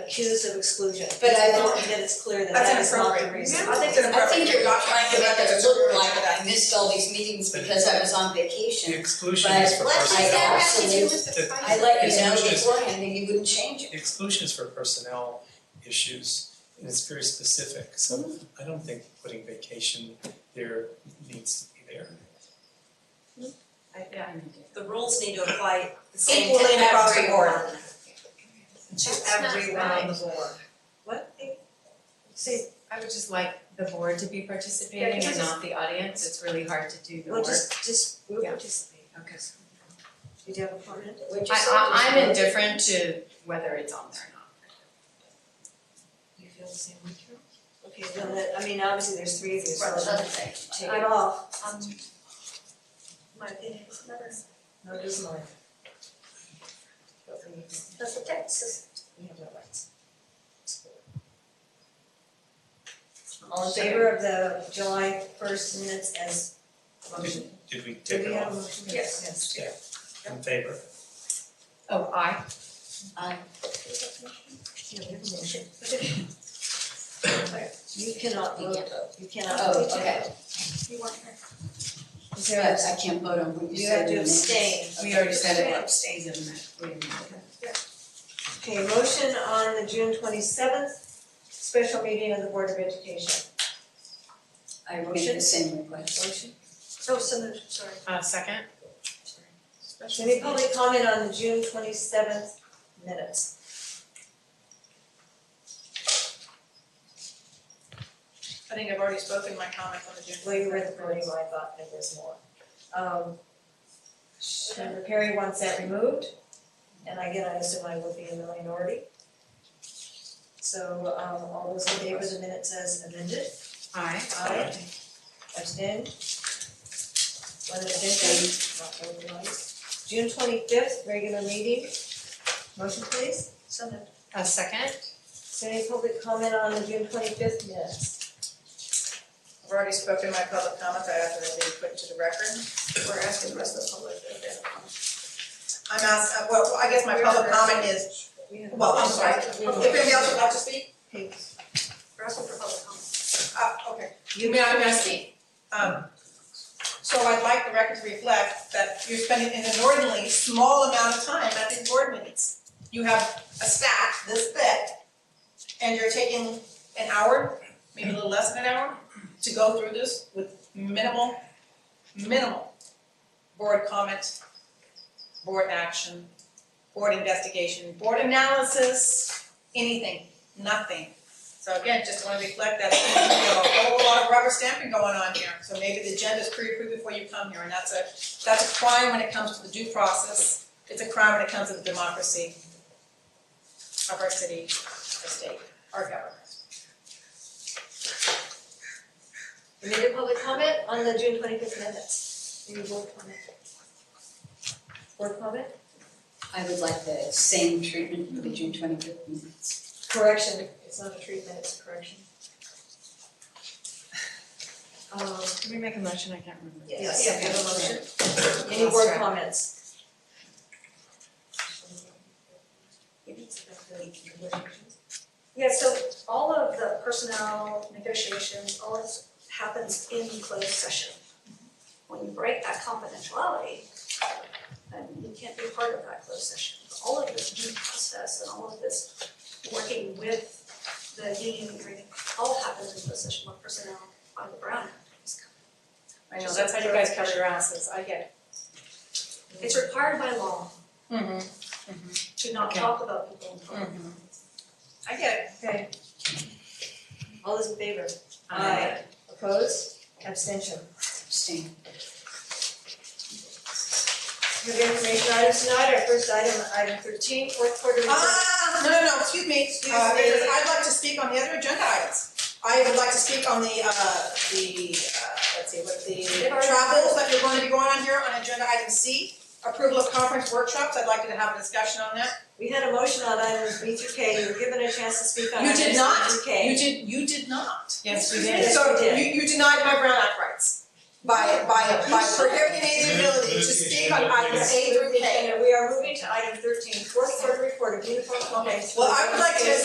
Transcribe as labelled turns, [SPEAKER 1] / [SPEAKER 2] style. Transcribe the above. [SPEAKER 1] accused of exclusion, but I don't think that it's clear that
[SPEAKER 2] That's
[SPEAKER 1] that is not the
[SPEAKER 2] inappropriate.
[SPEAKER 1] reason.
[SPEAKER 2] I think it's
[SPEAKER 3] I
[SPEAKER 2] inappropriate.
[SPEAKER 3] think you're not trying to make it
[SPEAKER 2] That's
[SPEAKER 3] look
[SPEAKER 2] inappropriate.
[SPEAKER 3] like I missed all these meetings because I was on
[SPEAKER 4] The
[SPEAKER 3] vacation.
[SPEAKER 4] exclusion is for
[SPEAKER 3] But let's just
[SPEAKER 4] personnel,
[SPEAKER 3] have- I let you know beforehand and you wouldn't change
[SPEAKER 4] the
[SPEAKER 3] it.
[SPEAKER 4] exclusion is for personnel issues, and it's very specific, so I don't think putting vacation there needs to be there.
[SPEAKER 1] The rules need to apply the
[SPEAKER 2] same Equally to across the everyone. board.
[SPEAKER 1] To
[SPEAKER 2] That's not
[SPEAKER 1] everyone on the board. What?
[SPEAKER 5] See, I would just like the board to be
[SPEAKER 1] Yeah,
[SPEAKER 5] participating
[SPEAKER 1] you just-
[SPEAKER 5] and not the audience, it's really hard to do the
[SPEAKER 1] Well,
[SPEAKER 5] work.
[SPEAKER 1] just, just, we'll
[SPEAKER 5] Yeah.
[SPEAKER 1] participate.
[SPEAKER 5] Okay.
[SPEAKER 1] Did you have a comment?
[SPEAKER 3] What'd you say?
[SPEAKER 5] I I I'm indifferent to whether it's on there or not.
[SPEAKER 1] You feel the same way, Carol? Okay, then that, I mean, obviously there's three of you,
[SPEAKER 3] Right,
[SPEAKER 1] so
[SPEAKER 3] another thing. Take it.
[SPEAKER 1] I'm off.
[SPEAKER 2] Um, My opinion is never,
[SPEAKER 1] No, it is mine.
[SPEAKER 2] that's the text.
[SPEAKER 1] We have no rights. All in favor of the July first minutes as motion?
[SPEAKER 4] Did we
[SPEAKER 1] Do
[SPEAKER 4] take
[SPEAKER 1] we
[SPEAKER 4] it
[SPEAKER 1] have a
[SPEAKER 4] off
[SPEAKER 1] motion?
[SPEAKER 2] Yes.
[SPEAKER 1] Yes.
[SPEAKER 4] in favor?
[SPEAKER 5] Oh, I,
[SPEAKER 1] Yeah,
[SPEAKER 3] Um,
[SPEAKER 1] we have a motion. You cannot
[SPEAKER 3] You
[SPEAKER 1] vote, you cannot
[SPEAKER 3] oh,
[SPEAKER 1] vote.
[SPEAKER 3] okay,
[SPEAKER 2] You want her.
[SPEAKER 1] Is
[SPEAKER 3] but
[SPEAKER 1] there a-
[SPEAKER 3] I can't vote on what you
[SPEAKER 1] You
[SPEAKER 3] said
[SPEAKER 1] have to
[SPEAKER 3] in the minutes.
[SPEAKER 1] abstain.
[SPEAKER 5] we already said it,
[SPEAKER 2] Okay.
[SPEAKER 5] abstains in that, wait a minute.
[SPEAKER 1] Okay, motion on the June twenty-seventh, special meeting of the Board of Education.
[SPEAKER 3] I made the same request.
[SPEAKER 1] Motion.
[SPEAKER 2] Oh, so moved, sorry.
[SPEAKER 5] Uh, second,
[SPEAKER 1] Any public comment on the June twenty-seventh minutes?
[SPEAKER 2] I think I've already spoken my comment on the June.
[SPEAKER 1] Well, you read the podium, I thought that there's more. Um, Senator Perry wants that removed, and I again, I assume I will be in the minority. So, um, all those in favor of the minutes as amended?
[SPEAKER 5] I,
[SPEAKER 1] Aye. Abstain? One abstention, not voting rights. June twenty-fifth, regular meeting. Motion please.
[SPEAKER 2] So moved.
[SPEAKER 5] uh, second,
[SPEAKER 1] Is there any public comment on the June twenty-fifth minutes?
[SPEAKER 2] I've already spoken my public comment, I have to be put into the record. We're asking the rest of the public if they have a comment. I'm asking, well, I guess my public comment is,
[SPEAKER 1] We have a
[SPEAKER 2] well, I'm
[SPEAKER 1] motion.
[SPEAKER 2] sorry, if anybody else would like to speak,
[SPEAKER 1] Okay.
[SPEAKER 2] we're asking for public comment. Uh, okay.
[SPEAKER 1] You
[SPEAKER 2] May I, may I speak? Um, so I'd like the record to reflect that you're spending an inordinately small amount of time at these board meetings. You have a stack this thick, and you're taking an hour, maybe a little less than an hour, to go through this with minimal, minimal board comment, board action, board investigation, board analysis, anything, nothing. So again, just wanna reflect that, you know, a whole lot of rubber stamping going on here, so maybe the agenda's pre-approved before you come here, and that's a, that's a crime when it comes to the due process. It's a crime when it comes to the democracy of our city, our state, our government.
[SPEAKER 1] Any other public comment on the June twenty-fifth minutes? Any board comment? Board comment?
[SPEAKER 3] I would like the same treatment for the June twenty-fifth minutes.
[SPEAKER 1] Correction, it's not a treatment, it's a correction. Um,
[SPEAKER 5] did we make a motion, I can't remember.
[SPEAKER 1] yes, you have a motion. Any
[SPEAKER 5] That's
[SPEAKER 1] board
[SPEAKER 5] right.
[SPEAKER 1] comments?
[SPEAKER 6] Yeah, so all of the personnel negotiations, all this happens in closed session. When you break that confidentiality, then you can't be part of that closed session. All of this due process and all of this working with the union agreement, all happens in closed session when personnel on the ground is coming.
[SPEAKER 2] I know, that's how you guys cover your asses, I get
[SPEAKER 6] It's required by law
[SPEAKER 2] it. Mm-hmm.
[SPEAKER 6] to not
[SPEAKER 5] Okay.
[SPEAKER 6] talk about people in public.
[SPEAKER 2] I get
[SPEAKER 1] Okay. All those in favor?
[SPEAKER 5] I,
[SPEAKER 1] Opposed? Abstention?
[SPEAKER 3] Abstain.
[SPEAKER 1] Move information items tonight, our first item, item thirteen, fourth quarter
[SPEAKER 2] it.
[SPEAKER 1] results.
[SPEAKER 2] Ah, no, no, no, excuse me,
[SPEAKER 1] Excuse
[SPEAKER 2] uh,
[SPEAKER 1] me.
[SPEAKER 2] because I'd like to speak on the other agenda items. I would like to speak on the, uh, the, uh, let's see, what the
[SPEAKER 6] They've already-
[SPEAKER 2] travels that are going to be going on here on agenda item C, approval of conference workshops, I'd like you to have a discussion on that.
[SPEAKER 1] We had a motion on items B through K, you were given a chance to speak on
[SPEAKER 2] You
[SPEAKER 1] items
[SPEAKER 2] did
[SPEAKER 1] B
[SPEAKER 2] not.
[SPEAKER 1] through K.
[SPEAKER 2] You did, you did not.
[SPEAKER 5] yes,
[SPEAKER 1] Yes,
[SPEAKER 5] we did,
[SPEAKER 1] we
[SPEAKER 2] So
[SPEAKER 1] did.
[SPEAKER 2] you, you denied my Brown Act rights by, by, by prohibiting the ability to speak on items A through K.
[SPEAKER 1] We are moving to item thirteen, fourth quarter report of uniform compliance.
[SPEAKER 2] Well, I would like to